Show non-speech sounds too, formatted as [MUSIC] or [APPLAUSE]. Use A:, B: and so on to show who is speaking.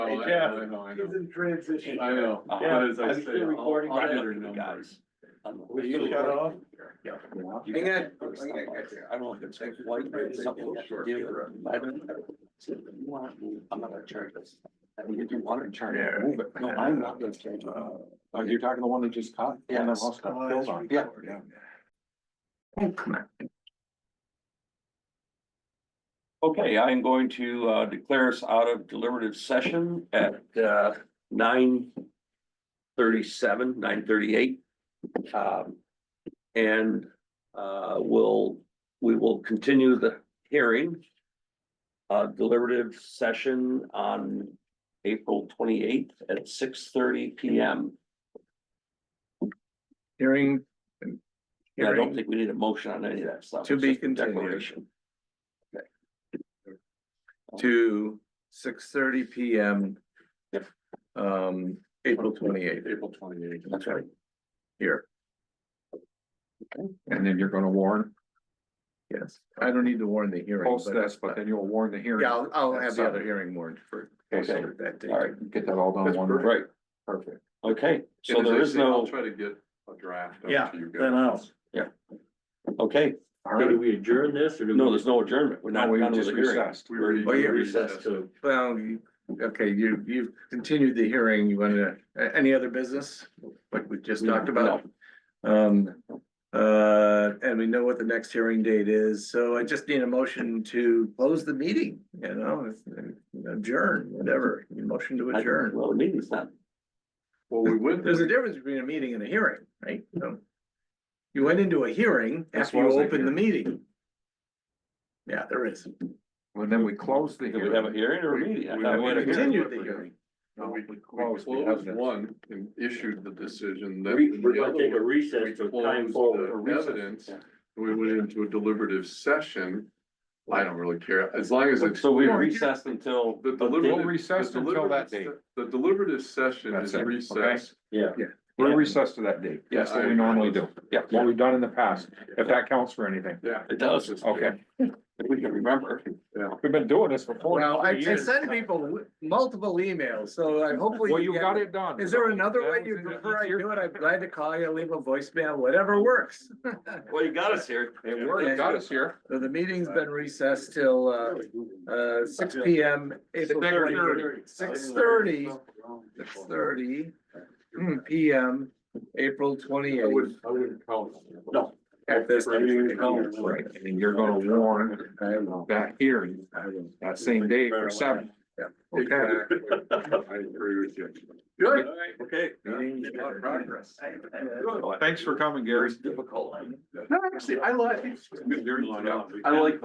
A: I
B: know,
A: Jeff,
B: I know, I
A: He's
B: know.
A: in transition.
B: I know, but
A: Yeah,
B: as I
C: I'm
B: say.
C: still recording.
B: I'll- I'll
C: I'm
B: enter
C: looking at the
B: numbers.
D: Um,
A: Will you cut off?
C: Yeah.
E: Hang on, hang on, hang on.
C: I don't know if it's white or something.
E: Sure.
C: Yeah, I don't know. I'm not gonna charge this. I mean, if you want to charge it, move it. No, I'm not gonna charge it.
D: Uh,
E: Oh, you're talking the one that just caught?
C: Yeah.
E: The house
A: Oh,
E: got killed on.
C: Yeah. Okay, I am going to uh, declare us out of deliberative session at uh, nine thirty-seven, nine thirty-eight. Um, And uh, we'll, we will continue the hearing. uh, Deliberative session on April twenty-eighth at six thirty P M.
D: Hearing.
C: I don't
D: Hearing
C: think we need a motion on any of that stuff.
D: To
C: It's
D: be
C: just a
D: continued.
C: declaration.
D: to six thirty P M.
C: Yep.
D: Um, April twenty eighth
B: April twenty eighth.
C: That's right.
D: here,
E: And then you're gonna warn,
D: yes. I don't need to warn the hearing.
E: post this, but then you'll warn the hearing.
D: Yeah, I'll, I'll have the other
E: Saturday.
D: hearing warned for.
C: Okay.
D: for that date.
C: All right,
E: Get that all done
B: That's
E: one.
B: perfect.
C: right.
E: Perfect.
C: Okay, so
B: And as
C: there
B: I
C: is
B: say, I'll
C: no,
B: Try to get a draft.
A: Yeah, Then I'll.
C: okay,
E: All right.
A: we adjourn this or
C: no, there's no adjournment. We're not
E: No, we
C: done with
E: just
C: the hearing.
E: recessed.
B: We were-
D: Oh, yeah,
C: recessed to-
D: Well, you, okay, you, you've continued the hearing. You want to, a- any other business like we just talked about? Um, uh, and we know what the next hearing date is, so I just need a motion to close the meeting, you know, uh, adjourn, whatever, motion to
C: I-
D: adjourn.
C: Well, the meeting's not,
B: Well, we
D: [LAUGHS]
B: went.
D: There's a difference between a meeting and a hearing, right? So You went into a hearing
E: This
D: after you
E: was a
D: opened the meeting. Yeah, there is.
E: Well, then we close the
C: did we have a
E: hearing.
C: hearing or a
B: We-
C: meeting? I
B: we-
C: thought
B: we
C: we had a
B: continued.
D: Continued
C: hearing.
D: the hearing.
B: No, We we
E: Closed the
B: closed
E: evidence.
B: one and issued the decision that.
A: We, we're
B: the
A: gonna
B: other
A: take a
B: one,
A: recess
B: we
A: to
B: closed
A: time
B: the
A: forward.
B: Evidence, and we went into a deliberative session. I don't really care, as long as it's.
C: So we recessed until.
B: The
E: We'll
B: deliberative.
E: recess
B: the
E: until that
B: deliberative
E: date.
B: se- The deliberative session
E: That's
B: is
E: it, okay?
B: recessed.
E: We're recessed to that date. That's
B: Yeah,
E: what
B: I-
E: we normally do.
C: Yeah.
E: What we've done in the past, if that counts for anything.
B: Yeah.
C: It does, if
E: Okay,
C: we can remember.
E: we've been doing this for forty
D: Well, I, I
E: years.
D: send people multiple emails, so I hopefully.
E: Well,
D: you
E: you
D: get
E: got
D: them.
E: it done.
D: Is there another way
E: That
D: you
E: was it.
D: prefer I do it? I'm glad to call you, leave a voicemail, whatever works.
C: Well, you got us here.
E: It worked, got us here.
D: So the meeting's been recessed till, uh, uh, six P M. April
E: Six
D: Six thirty, six thirty hmm, P M, April twenty
B: I
D: eighth.
B: wouldn't, I wouldn't count.
C: No.
D: At this.
E: Right, and you're gonna warn that hearing that same day for seven.
D: Yeah.
E: Okay.
B: Exactly. [LAUGHS] I agree with you. Good.
C: Okay.
D: Meeting in progress.
E: Thanks for coming, Gary.
C: It's difficult.
E: No, actually, I like.
B: I like